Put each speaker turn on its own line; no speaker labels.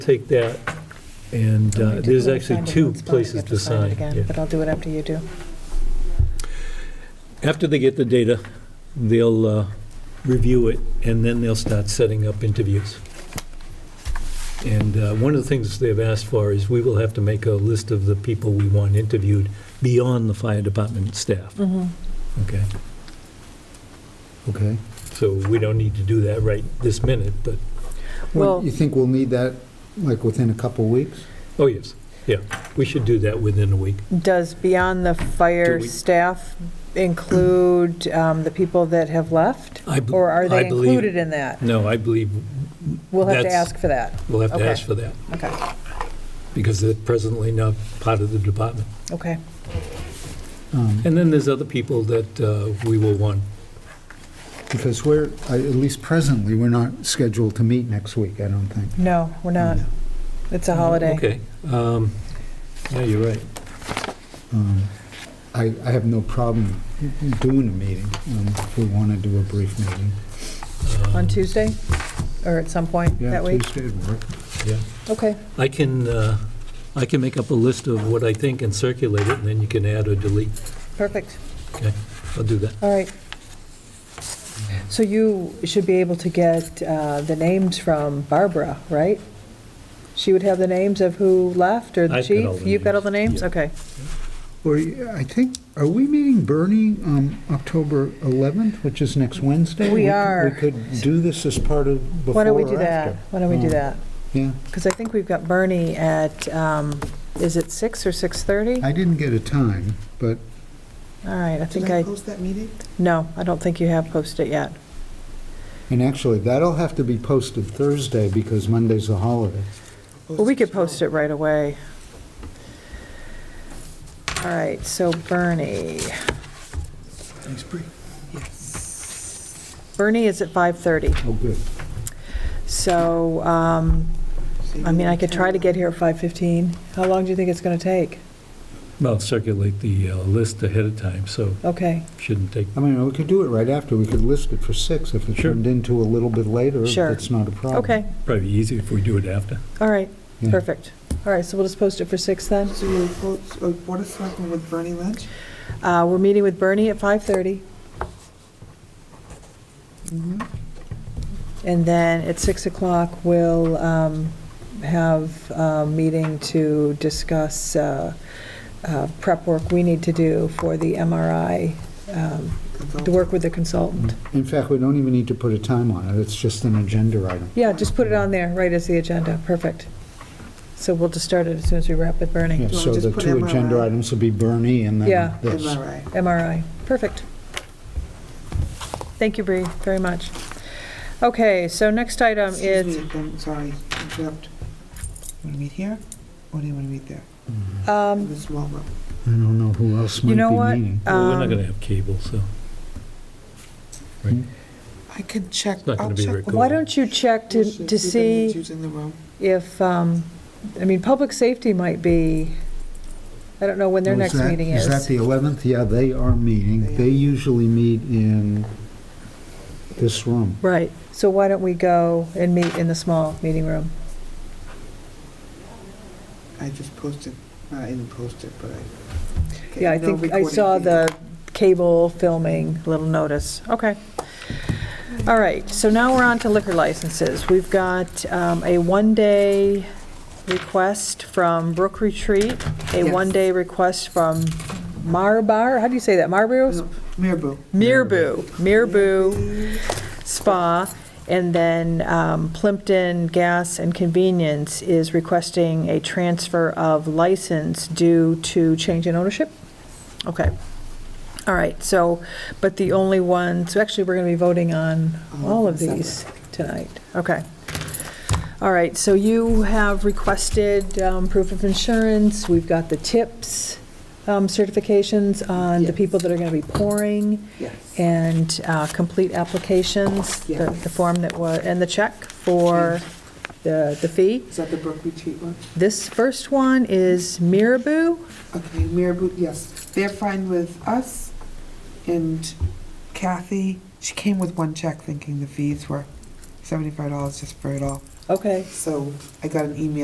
take that, and
I
uh,
took
there's
one
actually
signed in
two
one spot, I
places
get
to
it
sign.
again,
yeah.
But I'll do it after you do.
After they get the data, they'll uh, review it, and then they'll start setting up interviews. And uh, one of the things they've asked for is we will have to make a list of the people we want interviewed beyond the fire department staff, okay?
Okay.
So we don't need to do that right this minute, but,
Well-
Well, you think we'll need that, like, within a couple weeks?
oh, yes, yeah, we should do that within a week.
Does Beyond the Fire
Do we-
staff include um, the people that have left?
I b-
Or are
I
they
believe-
included in that?
No, I believe
We'll have to
That's-
ask for that.
we'll have to
Okay.
ask for that,
Okay,
because they're presently not part of the department.
okay.
Um,
And then there's other people that uh, we will want.
Because we're, I- at least presently, we're not scheduled to meet next week, I don't think.
No, we're not. It's a holiday.
Mm, Okay. um, Yeah, you're right.
Um, I, I have no problem doing a meeting, um, if we want to do a brief meeting.
On Tuesday? Or at some point that week?
Yeah, Tuesday would work.
Yeah.
Okay,
I can, uh, I can make up a list of what I think and circulate it, and then you can add or delete.
perfect.
Okay, I'll do that.
All right. So you should be able to get uh, the names from Barbara, right? She would have the names of who left, or the
I've got all
chief?
the
You've got all the names?
names, yeah.
Okay.
Or, yeah, I think, are we meeting Bernie um, October 11th, which is next Wednesday?
We
could-
are.
We could do this as part of before
Why don't we do
or
that?
after.
Why don't we do
Um,
that?
Yeah,
Because I think we've got Bernie at, um, is it 6 or 6:30?
I didn't get a time, but
All right, I think
Did I
I,
post that meeting?
no, I don't think you have posted it yet.
And actually, that'll have to be posted Thursday because Monday's a holiday.
Well, we could post it right away. All right, so Bernie,
Thanks, Bree. Yes.
Bernie is at 5:30,
Oh, good.
so um, I mean, I could try to get here at 5:15. How long do you think it's going to take?
Well, circulate the uh, list ahead of time, so
Okay,
shouldn't take,
I mean, we could do it right after. We could list it for six if it
Sure.
turned into a little bit later.
Sure.
It's not a problem.
okay,
probably easier if we do it after.
all right,
Yeah.
perfect. All right, so we'll just post it for 6 then?
So you post, uh, Board of Selectmen with Bernie Lynch?
Uh, We're meeting with Bernie at 5:30, Mm-hmm. and then at 6 o'clock, we'll um, have a meeting to discuss uh, uh, prep work we need to do for the MRI, um, the work with the consultant.
In fact, we don't even need to put a time on it. It's just an agenda item.
Yeah, just put it on there, right as the agenda, perfect. So we'll just start it as soon as we wrap with
Yeah,
Bernie.
wanna
So
just
the
put
two agenda
MRI?
items would be Bernie and
Yeah.
then
Am
this.
I right?
Um, MRI. Perfect. Thank you, Bree, very much. Okay, so next item
Excuse
is,
me, I'm sorry, interrupt. Want to meet here, or do you want to meet there? In
um,
the small room?
I don't know who else
you
might
know what?
be meeting.
Well, We're not
Um,
going to have cable, so.
I can check,
not gonna be
I'll check.
recorded.
with-
Why don't you check to,
We'll
to
see if anyone
see
who's in the room.
if, um, I mean, public safety might be, I don't know when their
Oh,
next
that-
meeting
Is that
is.
the 11th? Yeah, they are meeting. They usually meet in this room.
Right, so why don't we go and meet in the small meeting room?
I just posted, uh, I didn't post it, but I. Okay,
Yeah, I
no
think I
recording
saw
fee.
the cable filming little notice. Okay. All right, so now we're on to liquor licenses. We've got um, a one-day request from Brook Retreat, a
Yes.
one-day request from Marbar, how do you say that, Marbu?
No, Mirabel.
Mirbu, Mirbu
Mirabel.
Spa, and then um, Plimpton Gas and Convenience is requesting a transfer of license due to change in ownership? Okay. All right, so, but the only one, so actually, we're going to be voting on all of these tonight. Okay. All right, so you have requested um, proof of insurance. We've got the tips um, certifications on the
Yes.
people that are going to be pouring
Yes.
and uh, complete applications, the the form that was, and the check for the the fee.
Is that the Brook Retreat one?
This first one is Mirabou.
Okay, Mirabel, yes. They're fine with us and Kathy. She came with one check thinking the fees were $75 just for it all.
Okay.
So I got an email